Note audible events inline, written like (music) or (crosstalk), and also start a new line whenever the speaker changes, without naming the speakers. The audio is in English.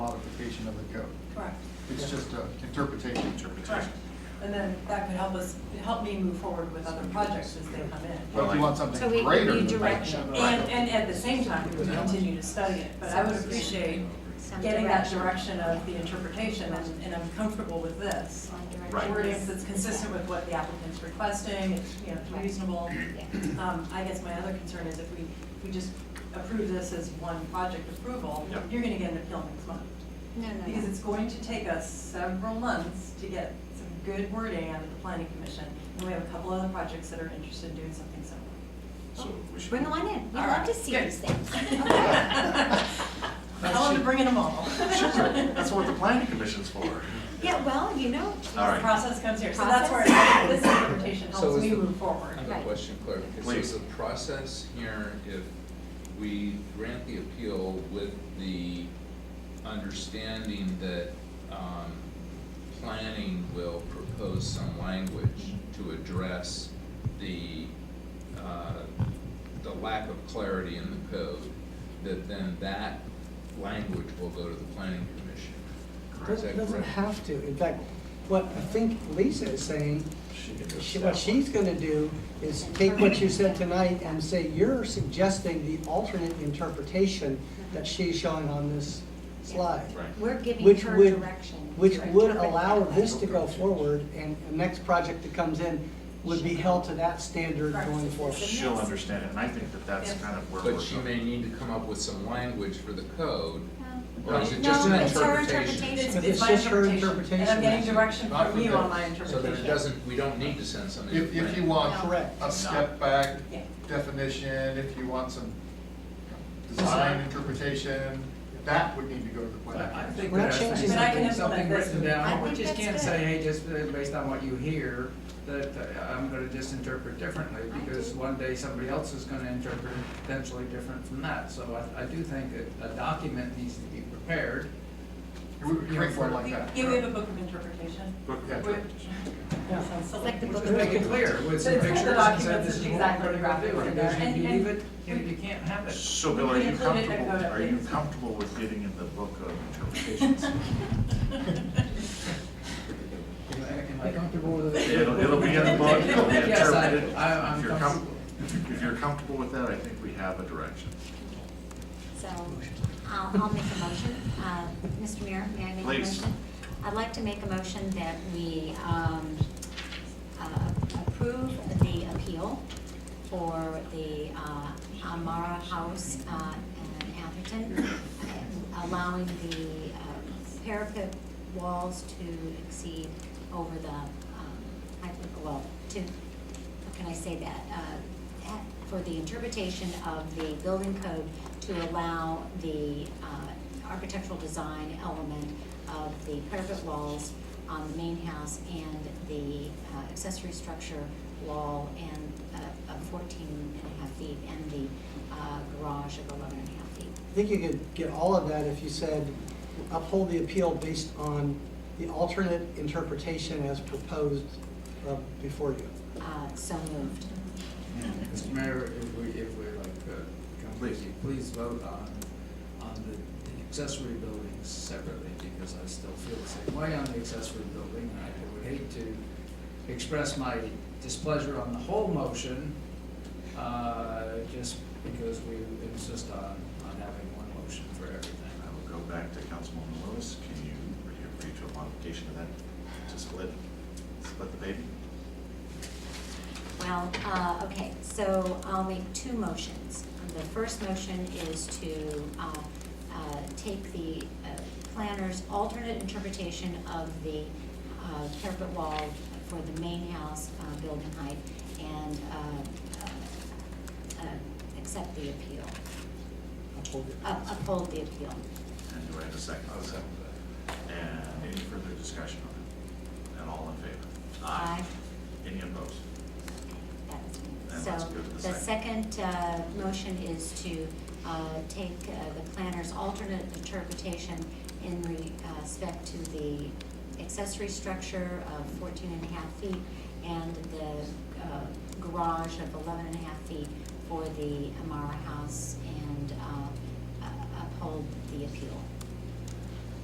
definition of the code.
Correct,
It's just a interpretation.
correct. And then that could help us, help me move forward with other projects as they come in.
But if you want something
So we
greater.
need
than that,
direction.
And, and at the same time, we would continue to study it, but I would appreciate
Some
getting that
direction.
direction of the interpretation, and and I'm comfortable with this.
Some
Right.
direction.
Wording that's consistent with what the applicant's requesting, it's, you know, it's reasonable. Um, I guess my other concern is if we, we just approve this as one project approval,
Yep.
you're gonna get an appeal next month.
No, no,
Because
no.
it's going to take us several months to get some good wording out of the planning commission. And we have a couple other projects that are interested in doing something similar.
So we should.
Bring one in. We
All
love
right,
to see
good.
these
(laughs)
things.
I want to bring in them all.
Sure, that's what the planning commission's for.
Yeah, well, you know,
All
The
right.
process comes here, so that's where
Process.
this interpretation
So
helps
is
me
the-
move forward.
I have a
Right.
question, Claire. Okay, So
Please.
is the process here, if we grant the appeal with the understanding that um, planning will propose some language to address the, uh, the lack of clarity in the code, that then that language will go to the planning commission? Is that
Doesn't doesn't
correct?
have to. In fact, what I think Lisa is saying,
She can just
she- what
step one.
she's gonna do is take what you said tonight and say, you're suggesting the alternate interpretation that she's showing on this slide.
Right.
we're giving
Which
her
would-
direction.
Which
to
would
interpret
allow
that.
this to go forward, and the next project that comes in would be held to that standard going forward.
She'll understand it, and I think that that's kind of where we're.
But she
going.
may need to come up with some language for the code
Um,
Or is it
No,
just an
it's her
It's,
interpretation.
But
it's
it's
my
just her
interpretation, and I'm getting direction
interpretation.
Not
from you
the-
on my
So that it
interpretation.
doesn't, we don't need to send something. to
If, if you
planning.
want
Correct.
a step back
Yeah.
definition, if you want some design interpretation, that would need to go to the planning.
I I
commission.
think
We're not
that's
changing
But I can
something,
implement
something
this.
written
I
down, we
think
just
that's
can't
good.
say, hey, just uh, based on what you hear, that uh, I'm gonna just interpret differently,
I
because
do.
one day somebody else is gonna interpret potentially different from that, so I, I do think that a document needs to be prepared.
It would create one like that.
Yeah, we have a book of interpretation.
Book
Yeah.
Which-
Yeah.
sounds silly.
Like the book
Just
of-
make it clear with
So
some
it's got (laughs) the
pictures and say
documents,
this is
it's
what we're
exactly
gonna
graphic
do,
in there,
because if you
and-
leave it,
and-
you you can't have it.
So
We
Bill, are you
include it in
comfortable,
the-
are you comfortable with getting in the book of
(laughs)
interpretations?
Am I- am I comfortable with it?
It'll, it'll be in the book, it'll be
Yes, I-
interpreted.
I- I'm
If you're com-
comfortable.
If you're comfortable with that, I think we have a direction.
So I'll, I'll make a motion. Uh, Mr. Mayor, may I make a motion?
Please.
I'd like to make a motion that we um, uh, approve the appeal for the uh, Amara House uh, in Atherton, allowing the uh, parapet walls to exceed over the, um, I think, well, to, how can I say that? Uh, at- For the interpretation of the building code to allow the uh, architectural design element of the parapet walls on the main house and the uh, accessory structure wall and uh, of 14 and a half feet and the uh, garage of 11 and a half feet.
I think you could get all of that if you said uphold the appeal based on the alternate interpretation as proposed uh, before you.
Uh, So moved.
Mr. Mayor, if we, if we like, uh,
Please.
completely, please vote on, on the the accessory buildings separately, because I still feel the same way on the accessory building. and I would hate to express my displeasure on the whole motion, uh, just because we insist on, on having one motion for everything.
I will go back to Councilwoman Lewis. Can you, are you agree to a modification of that to split, split the baby?
Well, uh, okay, so I'll make two motions. The first motion is to uh, uh, take the uh, planner's alternate interpretation of the uh, parapet wall for the main house uh, building height and uh, uh, uh, accept the appeal,
Uphold it.
up- Uh, uphold the appeal.
And do I have a 2nd And any further discussion on it? And all in favor?
Aye.
Any opposed?
That's me.
And let's
So
go to the
the second uh, motion is to uh, take uh, the planner's alternate interpretation in re- uh, respect to the accessory structure of 14 and a half feet and the uh, garage of 11 and a half feet for the Amara House and uh, uh, uphold the appeal.